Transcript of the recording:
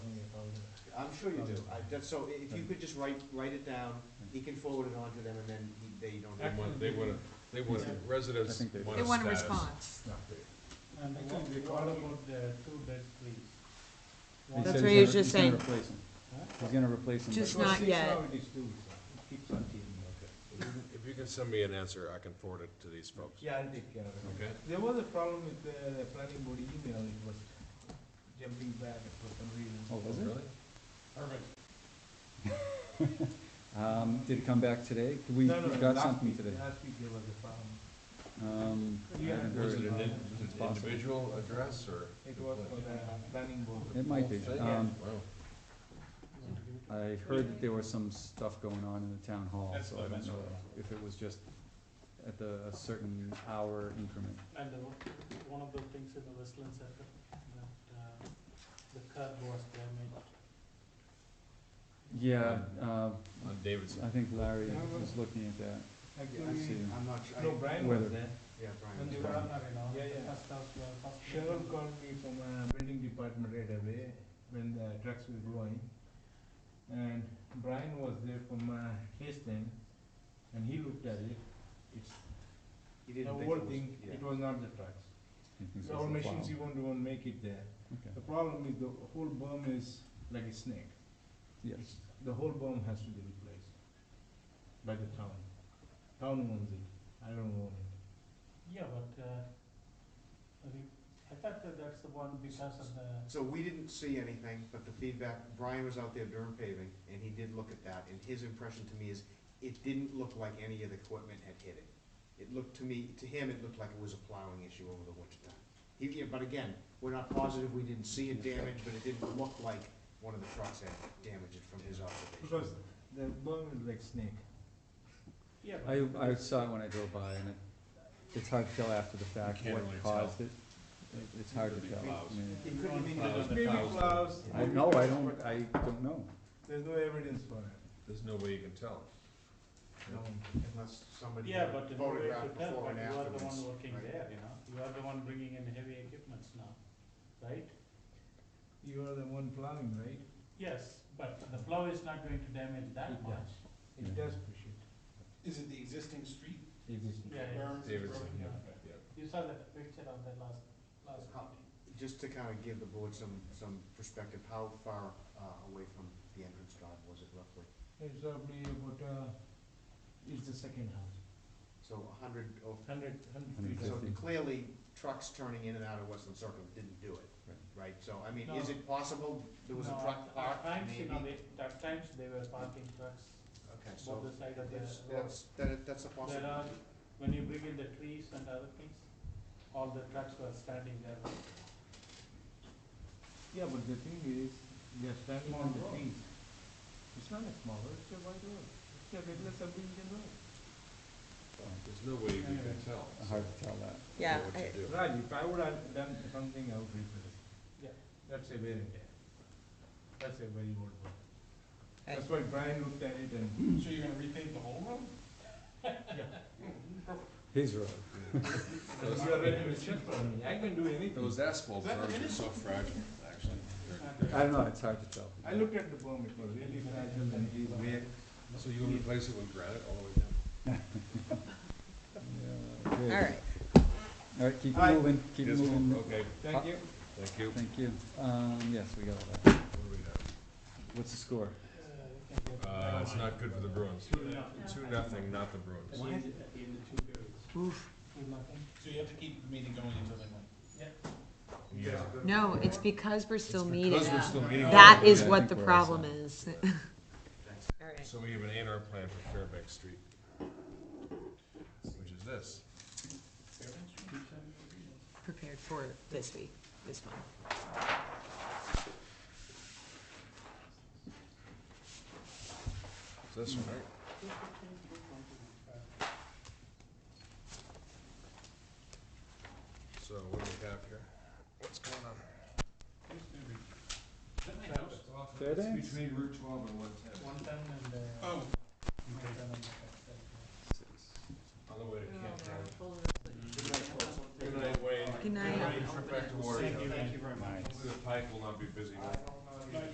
I'm sure you do, I, that's, so i- if you could just write, write it down, he can forward it on to them and then he- they don't. They want, they want, a- they want, a- I residents think they do. want They a want a status. response. And What- actually, what what we- about the two bed, please? He One- That's said what he's he was gonna- just saying. He's gonna replace him, he's gonna replace him. Just but- not yet. If you can send me an answer, I can forward it to these folks, Yeah, I'll take care of it. okay? There was a problem with the, the planning board email, it was jumping back for some reason. Oh, was it? Really? Um, did it come back today? Did We, we No, no, got last something week- today. Last week there was a problem. Um, I Yeah. haven't Was it heard. an in- It's an possible. individual address or? It was for the planning board. It might be. Whole thing? Um, Wow. I heard that there was some stuff going on in the town hall, That's so what I I don't meant. know if it was just at the, a certain hour increment. And the, one of the things in the Westland Center, that, uh, the curb was damaged. Yeah, uh, On Davidson. I think Larry was looking at that. Actually, see. I'm not sure. I- no, Brian Whether- was there. Yeah, Brian. When was they were there. on the, yeah, yeah. Cheryl called me from uh, building department right away when the trucks were going. And Brian was there from uh, his thing, and he looked at it. It's He the didn't think whole it was, thing, yeah. it was not the trucks. He thinks So it's our the machines, plow. you won't even make it there. Okay. The problem is the whole berm is like a snake. Yes, The whole berm has to be replaced by the town. Town owns it, I don't own it. Yeah, but, uh, I mean, I thought that that's the one because of the, So we didn't see anything, but the feedback, Brian was out there during paving, and he did look at that, and his impression to me is, it didn't look like any of the equipment had hit it. It looked to me, to him, it looked like it was a plowing issue over the winter time. He, yeah, but again, we're not positive, we didn't see it damaged, but it didn't look like one of the trucks had damaged it from his Because observation. the berm is like snake. yeah, but I, I saw it when I drove by and it, it's hard to tell after the fact can't what really caused it. It- It's hard to Could be tell. plows. I mean, It could have been Well, either the- Maybe thousand. plows. I maybe- know, I don't, I don't know. There's no evidence for it. There's no way you can tell. No. unless somebody yeah, but in a way to photographed tell, before but and you are the afterwards. one working right? there, you know, you are the one bringing in heavy equipments now, right? You are the one plowing, right? Yes, but the plow is not going to damage that It much. does. It Yeah. does push it. Is it the existing street? It is. Yeah, yeah. Davidson, yeah, Okay. yeah. You saw the picture of that last, last meeting. Just to kind of give the board some, some perspective, how far, uh, away from the entrance drive was it roughly? It's probably about, uh, it's the second house. So a hundred or Hundred, Hundred hundred feet. So Fifty. clearly, trucks turning in and out of Westland Circle didn't do it, right? So, I mean, is No. it possible there was a No, truck At parked, times, you maybe? know, they, at times they were parking trucks Okay, both so the side of the that's, road. that's, that- that's a There possibility. are, when you bring in the trees and other things, all the trucks were standing there. Yeah, but the thing is, they're standing Small on the road. trees. It's not a small road, it's a wide road. It's a regular subdivision road. There's no way you can tell. Hard to tell that. Yeah, What you I- do. Raj, if I would have done something, I would rebuild it. Yeah. That's a very, that's a very old one. I- That's why Brian looked at it and. So you're gonna repave the whole road? His road. Those- You are ready to check for me. I can do anything. Those asphalt Is that berms are finished? so fragile, actually. I don't know, it's hard to tell. I looked at the bomb, it was really fragile and he's way. So you would replace it with granite all the way down? Yeah, All okay. right, All right, keep Alright. moving, keep Yes, moving. Okay, Thank you. thank you. Thank you. Um, yes, we got all that. What do we have? What's the score? Uh, it's not good for the Bruins. Two, nothing, not the Bruins. At the end of two periods. Two nothing. So you have to keep the meeting going until they win? Yeah. no, it's because we're still meeting. Because we're still meeting. That all is the- Yeah, I think what the we're all problem set. is. Thanks. All right. So we have an A and R plan for Fairbanks Street. Which is this. prepared for this week, this month. It's this one, right? So what do we have here? What's going on? Fairbanks? Between Route twelve and one ten. One time and, uh. Oh. one time and, On the way to Camp Town. Good night, Wayne. Good night. Good night, trip back to Warrior. Thank you very much. Hopefully the pike will not be busy. tonight.